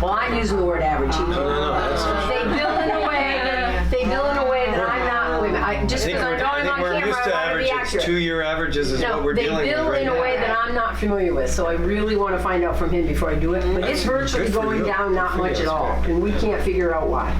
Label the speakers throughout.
Speaker 1: Well, I'm using the word average. He-
Speaker 2: No, no, no, that's-
Speaker 1: They bill in a way, they bill in a way that I'm not, wait a minute, I-
Speaker 2: I
Speaker 1: just
Speaker 2: think
Speaker 1: because I'm
Speaker 2: we're, I
Speaker 1: going
Speaker 2: think
Speaker 1: on
Speaker 2: we're
Speaker 1: camera,
Speaker 2: used
Speaker 1: I
Speaker 2: to
Speaker 1: want to be
Speaker 2: averages.
Speaker 1: accurate.
Speaker 2: Two-year averages is what
Speaker 1: No,
Speaker 2: we're
Speaker 1: they
Speaker 2: dealing with
Speaker 1: bill
Speaker 2: right
Speaker 1: in a way
Speaker 2: now.
Speaker 1: that I'm not familiar with, so I really want to find out from him before I do it. But it's
Speaker 2: That's Mm-hmm. good
Speaker 1: virtually
Speaker 2: for
Speaker 1: going
Speaker 2: you.
Speaker 1: down not
Speaker 2: Good for you.
Speaker 1: much at
Speaker 2: That's
Speaker 1: all,
Speaker 2: good.
Speaker 1: and we can't figure out why.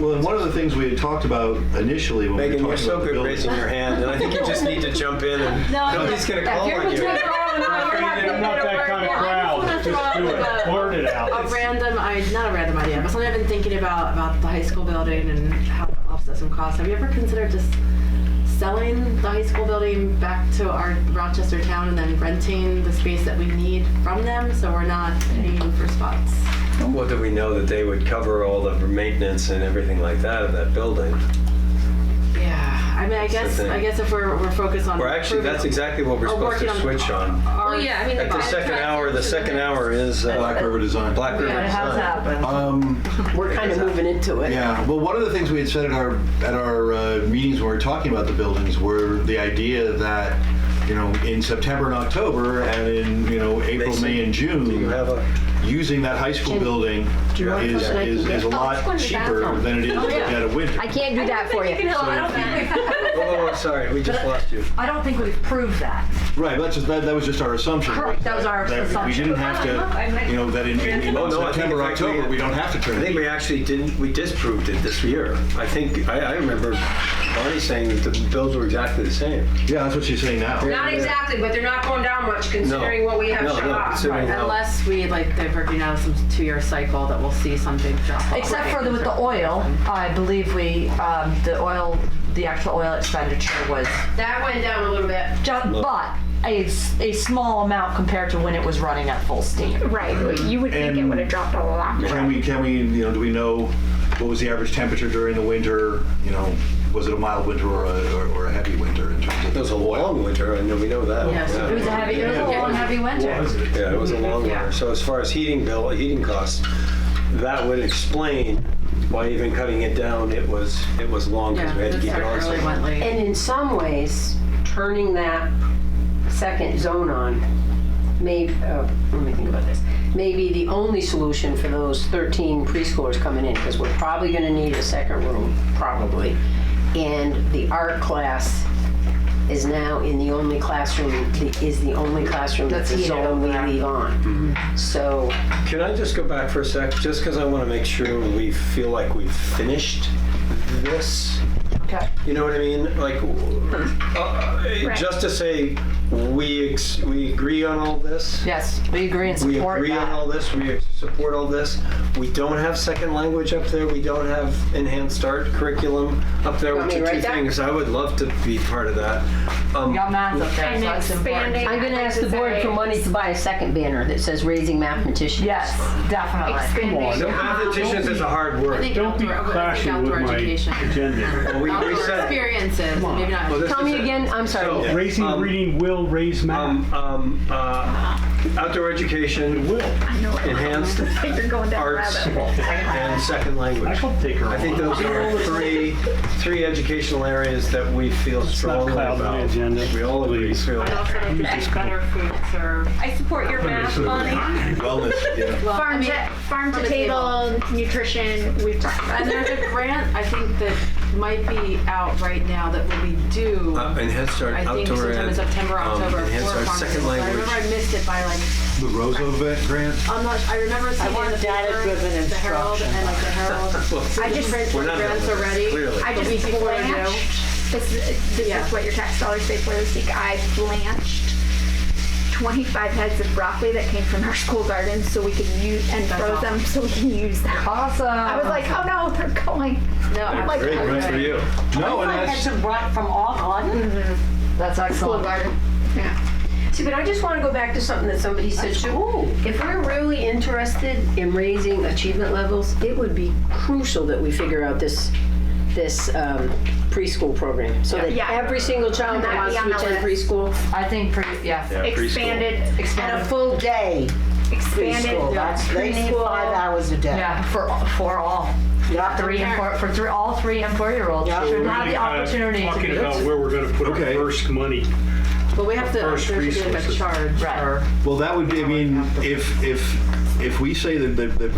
Speaker 3: Well, and one of the things we had talked about initially when we
Speaker 2: Megan,
Speaker 3: were
Speaker 2: you're
Speaker 3: talking
Speaker 2: so
Speaker 3: about
Speaker 2: good
Speaker 3: the
Speaker 2: raising
Speaker 3: building.
Speaker 2: your hand, and I think you just need to jump in and
Speaker 4: No, I'm
Speaker 2: nobody's gonna
Speaker 1: If
Speaker 2: call
Speaker 1: you're
Speaker 2: on you.
Speaker 1: between Laurel and I, we're not
Speaker 5: I'm
Speaker 1: gonna
Speaker 5: not
Speaker 1: get
Speaker 5: that
Speaker 1: over
Speaker 5: kind of
Speaker 1: it.
Speaker 5: crowd.
Speaker 4: wanna throw
Speaker 5: Just
Speaker 4: out
Speaker 5: do
Speaker 4: the-
Speaker 5: it. Blurt it out.
Speaker 4: a random idea, not a random idea, but something I've been thinking about about the high school building and how to offset some costs. Have you ever considered just selling the high school building back to our Rochester town and then renting the space that we need from them so we're not paying for spots?
Speaker 2: What do we know that they would cover all the maintenance and everything like that of that building?
Speaker 4: Yeah, I mean, I
Speaker 2: the
Speaker 4: guess
Speaker 2: thing.
Speaker 4: I guess if we're, we're focused on
Speaker 2: Or actually,
Speaker 4: improving
Speaker 2: that's exactly what we're
Speaker 4: Oh,
Speaker 2: supposed to
Speaker 4: working on-
Speaker 2: switch on.
Speaker 4: our-
Speaker 6: Well, yeah, I mean,
Speaker 2: At the
Speaker 6: contract
Speaker 2: second hour, the
Speaker 6: is-
Speaker 2: second hour is uh,
Speaker 3: Black River Design.
Speaker 2: Black River
Speaker 5: It has
Speaker 2: Design.
Speaker 5: happened.
Speaker 3: Um,
Speaker 1: We're kind of moving into it.
Speaker 3: Yeah, well, one of the things we had said at our, at our uh, meetings when we were talking about the buildings were the idea that, you know, in September and October and in, you know, April,
Speaker 2: Mason,
Speaker 3: May and June,
Speaker 2: Do you have a,
Speaker 3: using that high school building
Speaker 1: you want
Speaker 3: is,
Speaker 1: something I
Speaker 3: is,
Speaker 1: can
Speaker 3: is a
Speaker 1: get?
Speaker 4: Oh, it's going
Speaker 3: lot
Speaker 4: to the
Speaker 3: cheaper
Speaker 4: bathroom.
Speaker 3: than it is to get a winter.
Speaker 7: I can't do that for you.
Speaker 4: I don't think we've
Speaker 2: oh, oh, sorry, we just lost you.
Speaker 5: I don't think we've proved that.
Speaker 3: Right, that's just, that, that was just our assumption.
Speaker 5: Correct, that was our
Speaker 3: We
Speaker 5: assumption.
Speaker 3: didn't have to, you know, that in, in in
Speaker 2: Oh, no, I think
Speaker 3: September,
Speaker 2: in fact we-
Speaker 3: October, we don't have to
Speaker 2: I
Speaker 3: turn
Speaker 2: think
Speaker 3: it.
Speaker 2: we actually didn't, we disproved it this year. I think, I, I remember Bonnie saying that the bills were exactly the same.
Speaker 3: Yeah, that's what she's saying now.
Speaker 1: Not exactly, but they're not going down much considering what we have
Speaker 2: No,
Speaker 1: shut
Speaker 2: no,
Speaker 1: off.
Speaker 2: considering how-
Speaker 4: Unless we like divert, you know, some two-year cycle that we'll see some big drop. off.
Speaker 5: Except for
Speaker 4: Right.
Speaker 5: the, with the oil, I believe we, um, the oil, the actual oil expenditure was,
Speaker 1: That went down a little bit.
Speaker 5: ju- but a, s- a small amount compared to when it was running at full steam.
Speaker 6: Right, but you would think it
Speaker 3: And-
Speaker 6: would have dropped a lot.
Speaker 3: Can we, can we, you know, do we know what was the average temperature during the winter? You know, was it a mild winter or a, or- or a heavy winter in terms of?
Speaker 2: It was a long winter, I know, we know that.
Speaker 4: Yes,
Speaker 2: Yeah.
Speaker 5: It was a heavy, it was a long, heavy winter.
Speaker 2: Yeah, it was a long
Speaker 4: Yeah.
Speaker 2: one. So as far as heating bill, heating costs, that would explain why even cutting it down, it was, it was long because
Speaker 4: Yeah,
Speaker 2: we had to
Speaker 4: that's
Speaker 2: keep it
Speaker 4: our
Speaker 2: on. so
Speaker 4: early
Speaker 2: long.
Speaker 4: went late.
Speaker 1: And in some ways, turning that second zone on may, uh, let me think about this, may be the only solution for those 13 preschoolers coming in, because we're probably going to need a second room, probably. And the art class is now in the only classroom, is the only classroom that's
Speaker 5: That's
Speaker 1: a
Speaker 5: heated
Speaker 1: zone we
Speaker 5: over there.
Speaker 1: leave on. So,
Speaker 2: Can I just go back for a sec, just because I want to make sure we feel like we've finished this?
Speaker 5: Okay.
Speaker 2: You know what I mean? Like, uh, just to say, we, ex- we agree on all this?
Speaker 5: Yes, we agree and
Speaker 2: We
Speaker 5: support
Speaker 2: agree on all
Speaker 5: that.
Speaker 2: this, we support all this. We don't have second language up there, we don't have enhanced art curriculum up there,
Speaker 1: Want
Speaker 2: which
Speaker 1: me
Speaker 2: are
Speaker 1: to
Speaker 2: two
Speaker 1: write that?
Speaker 2: things. I would love to be part of that. Um,
Speaker 5: We got math up there, so
Speaker 6: And
Speaker 5: that's
Speaker 6: expanding.
Speaker 5: important.
Speaker 1: I'm going to ask the board for money to buy a second banner that says Raising Mathematicians.
Speaker 5: Yes, definitely.
Speaker 6: Expanding.
Speaker 2: So mathematicians is a hard
Speaker 4: I
Speaker 2: word.
Speaker 4: think
Speaker 5: Don't be
Speaker 4: outdoor, I think
Speaker 5: clashing with
Speaker 4: outdoor
Speaker 5: my
Speaker 4: education.
Speaker 2: Well, we- we
Speaker 4: outdoor
Speaker 2: said-
Speaker 4: experiences, maybe not.
Speaker 2: Well, this
Speaker 1: Tell me
Speaker 2: is a-
Speaker 1: again, I'm
Speaker 2: So-
Speaker 1: sorry.
Speaker 8: Raising
Speaker 2: Um,
Speaker 8: reading will raise math.
Speaker 2: Um, um, uh, outdoor education,
Speaker 8: Will.
Speaker 6: I know.
Speaker 2: enhanced
Speaker 6: You're going down a
Speaker 2: arts,
Speaker 6: rabbit hole.
Speaker 2: and second
Speaker 8: I
Speaker 2: language.
Speaker 8: shall take her
Speaker 2: I think
Speaker 8: on.
Speaker 2: those are three, three educational areas that we feel
Speaker 8: not
Speaker 2: strongly
Speaker 8: cloud my
Speaker 2: about.
Speaker 8: agenda,
Speaker 2: We all agree.
Speaker 8: please.
Speaker 2: feel-
Speaker 4: better food served.
Speaker 6: I support your math, Bonnie.
Speaker 3: Wellness, yeah.
Speaker 4: Well, I
Speaker 6: Farm
Speaker 4: mean,
Speaker 6: to, farm
Speaker 4: from
Speaker 6: to
Speaker 4: the
Speaker 6: table, nutrition, we've talked about.
Speaker 4: and there's a grant I think that might be out right now that will be due.
Speaker 2: Uh, and Head Start,
Speaker 4: I think
Speaker 2: outdoor
Speaker 4: sometime
Speaker 2: ed.
Speaker 4: in September,
Speaker 2: um,
Speaker 4: October.
Speaker 2: and Head
Speaker 4: for
Speaker 2: Start,
Speaker 4: farmers.
Speaker 2: second
Speaker 4: I
Speaker 2: language.
Speaker 4: remember I missed it by like
Speaker 3: The Roosevelt grant?
Speaker 4: I'm not. I remember seeing
Speaker 5: want
Speaker 4: it in the
Speaker 5: data-driven
Speaker 4: paper, the Herald and like the Herald.
Speaker 2: Well,
Speaker 4: I just print
Speaker 2: We're not done
Speaker 4: grants
Speaker 2: with
Speaker 4: already.
Speaker 2: this, clearly.
Speaker 6: I
Speaker 4: The
Speaker 6: just
Speaker 4: week before due.
Speaker 6: blanched. This is, this
Speaker 4: Yeah.
Speaker 6: is what your tax dollars say for this week. I blanched 25 heads of broccoli that came from our school garden so we could use and
Speaker 4: That's
Speaker 6: froze them so we can use them.
Speaker 5: Awesome.
Speaker 6: I was like, oh no, they're going.
Speaker 4: No,
Speaker 6: I'm
Speaker 4: I-
Speaker 6: like,
Speaker 2: Great, good for you.
Speaker 3: No, and that's,
Speaker 5: That's
Speaker 6: school
Speaker 5: excellent.
Speaker 6: garden. Yeah.
Speaker 1: See, but I just want to go back to something that somebody said, should, if we're really interested in raising achievement levels, it would be crucial that we figure out this, this um, preschool program. So that
Speaker 6: Yeah.
Speaker 1: every single child that
Speaker 6: Might
Speaker 1: wants
Speaker 6: be on
Speaker 1: to
Speaker 6: the
Speaker 1: attend
Speaker 6: list.
Speaker 1: preschool,
Speaker 5: I think, pretty- yeah.
Speaker 6: Expanded,
Speaker 1: and a
Speaker 5: Expanded,
Speaker 1: full day
Speaker 6: expanded.
Speaker 9: preschool. That's, they need five hours a day.
Speaker 5: yeah, for, for all.
Speaker 9: Yeah.
Speaker 5: Three and four, for three, all three and four-year-olds
Speaker 9: Yeah.
Speaker 5: should
Speaker 8: We're
Speaker 5: have
Speaker 8: really
Speaker 5: the
Speaker 8: kinda
Speaker 5: opportunity to
Speaker 8: Talking
Speaker 5: do
Speaker 8: about where we're gonna put our
Speaker 3: Okay.
Speaker 8: first money.
Speaker 4: But we have to. There
Speaker 8: First
Speaker 4: should be like a
Speaker 8: resources.
Speaker 4: charge
Speaker 5: Right.
Speaker 4: or.
Speaker 3: well, that would be, I mean, if, if, if we say that, that that